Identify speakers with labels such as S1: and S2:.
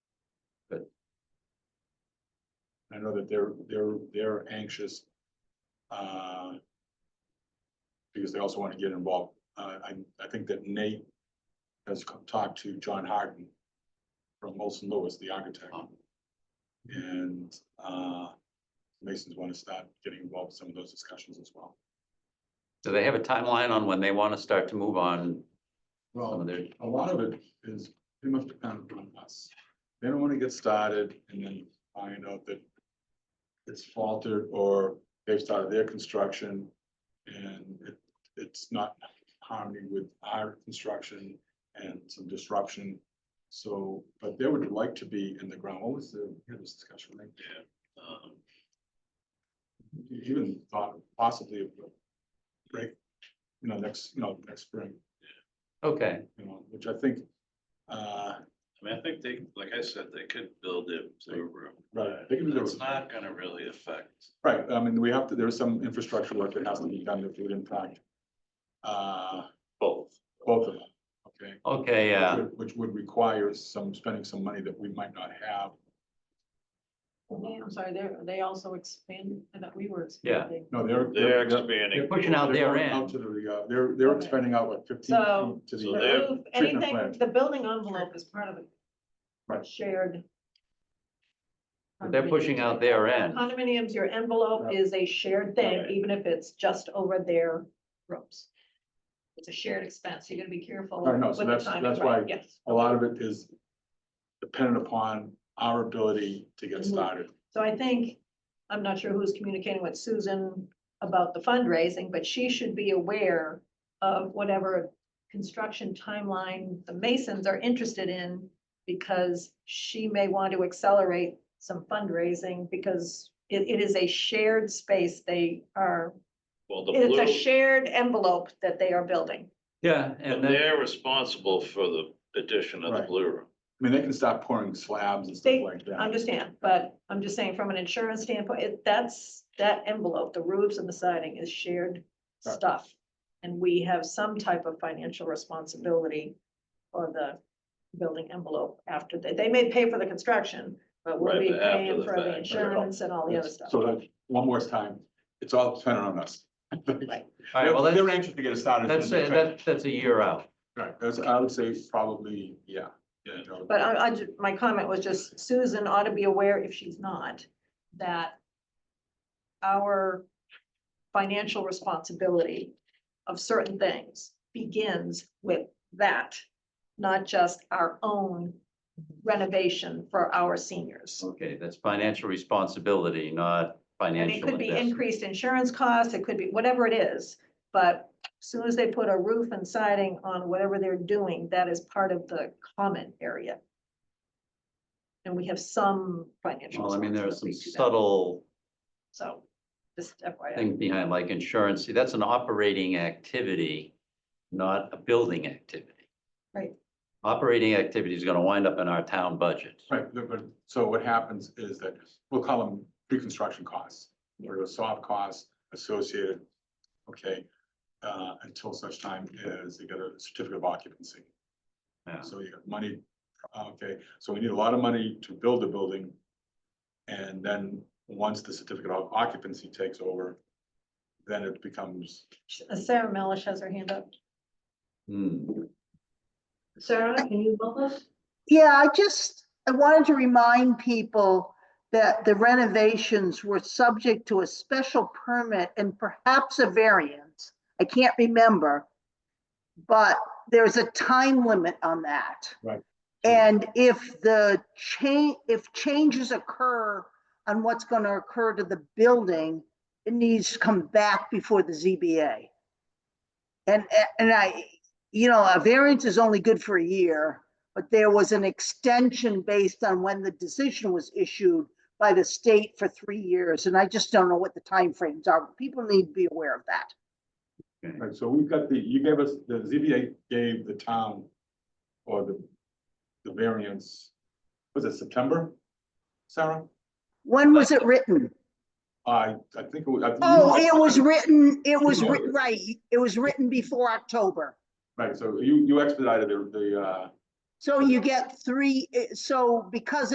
S1: I know that they're, they're, they're anxious. uh, Because they also want to get involved. Uh, I, I think that Nate has co- talked to John Harden from Olson Lewis, the architect. And, uh, Masons want to start getting involved in some of those discussions as well.
S2: Do they have a timeline on when they want to start to move on some
S1: Well,
S2: of their,
S1: a lot of it is pretty much dependent on us. They don't want to get started and then find out that it's faltered or they've started their construction and it, it's not harmony with our construction and some disruption. So, but they would like to be in the ground. What was the, here was discussion, right? Yeah. um, you Even thought possibly of, break, you know, next, you know, next spring
S2: okay,
S1: you know, which I think, uh,
S3: I mean, I think they, like I said, they could build it to a room.
S1: Right, they could do
S3: It's
S1: it.
S3: not gonna really affect.
S1: right, I mean, we have to, there's some infrastructure work that has to be done if we impact. Uh,
S3: Both.
S1: both of them, okay?
S2: okay, yeah,
S1: Which- Which would require some, spending some money that we might not have.
S4: Yeah, I'm sorry, they're, they also expand, I thought we were
S2: Yeah.
S4: expanding.
S1: No, they're.
S3: They're
S1: they're-
S3: expanding,
S2: pushing out
S1: they're
S2: their
S1: going
S2: end.
S1: Out to the, uh, they're, they're
S4: Okay.
S1: expanding out like fifteen
S4: So-
S1: feet to
S3: So
S1: the,
S3: they're-
S4: Remove
S1: treatment
S4: anything,
S1: plant.
S4: the building envelope is part of it.
S1: Right.
S4: Shared.
S2: But they're pushing out their end.
S4: Condominiums, your envelope is a shared thing,
S3: Right.
S4: even if it's just over their ropes. It's a shared expense, you're gonna be careful
S1: I
S4: with
S1: know, so
S4: the
S1: that's-
S4: timing,
S1: that's
S4: right,
S1: why-
S4: yes.
S1: a lot of it is dependent upon our ability to get
S4: Mhm.
S1: started.
S4: So I think, I'm not sure who's communicating with Susan about the fundraising, but she should be aware of whatever construction timeline the Masons are interested in, because she may want to accelerate some fundraising, because it, it is a shared space they are,
S3: well, the
S4: it's a
S3: blue,
S4: shared envelope that they are building.
S2: yeah, and
S3: and
S2: then,
S3: they're responsible for the addition of the
S1: Right.
S3: blue room.
S1: I mean, they can start pouring slabs and
S4: They-
S1: stuff like that.
S4: Understand, but I'm just saying from an insurance standpoint, it, that's, that envelope, the roofs and the siding is shared
S1: Right.
S4: stuff. And we have some type of financial responsibility for the building envelope after they, they may pay for the construction, but we'll
S3: Right,
S4: be
S3: but after
S4: paying
S3: the
S4: for
S3: fact,
S4: the
S3: right.
S4: insurance and all the other
S1: That's-
S4: stuff.
S1: So that, one more time, it's all dependent on us.
S2: all right, well,
S1: They're
S2: that's,
S1: anxious to get us started. as
S2: that's,
S1: soon
S2: a-
S1: as they can.
S2: that, that's a year out.
S1: Right, that's, I would say probably, yeah. yeah, no.
S4: But I, I, ju- my comment was just Susan ought to be aware, if she's not, that our financial responsibility of certain things begins with that, not just our own renovation for our seniors.
S2: Okay, that's financial responsibility, not
S4: And it
S2: financial
S4: could be
S2: investment.
S4: increased insurance costs, it could be whatever it is, but as soon as they put a roof and siding on whatever they're doing, that is part of the common area. And we have some financial.
S2: Well, I mean, there are some
S4: responsibility to that.
S2: subtle
S4: So, just FYI,
S2: things behind like insurance. See, that's an operating activity, not a building activity.
S4: Right.
S2: Operating activity is gonna wind up in our town budget.
S1: Right, but- but, so what happens is that, we'll call them pre-construction costs, or the soft costs associated, okay? Uh, until such time as they get a certificate of occupancy.
S2: Yeah.
S1: So you got money, okay, so we need a lot of money to build the building. And then, once the certificate of occupancy takes over, then it becomes
S4: Sarah Melish has her hand up.
S2: Hmm.
S4: Sarah, can you help us?
S5: Yeah, I just, I wanted to remind people that the renovations were subject to a special permit and perhaps a variance. I can't remember. But there's a time limit on that.
S1: Right.
S5: And if the change, if changes occur on what's going to occur to the building, it needs to come back before the ZBA. And, and I, you know, a variance is only good for a year but there was an extension based on when the decision was issued by the state for three years, and I just don't know what the timeframes are. People need to be aware of that.
S1: Right, so we've got the, you gave us, the ZBA gave the town or the, the variance, was it September? Sarah?
S5: When was it written?
S1: I, I think it was. I-
S5: Oh, it was written, it was, writ-
S1: Yeah.
S5: right, it was written before October.
S1: Right, so you, you expedited the, the, uh,
S5: So you get three, eh, so because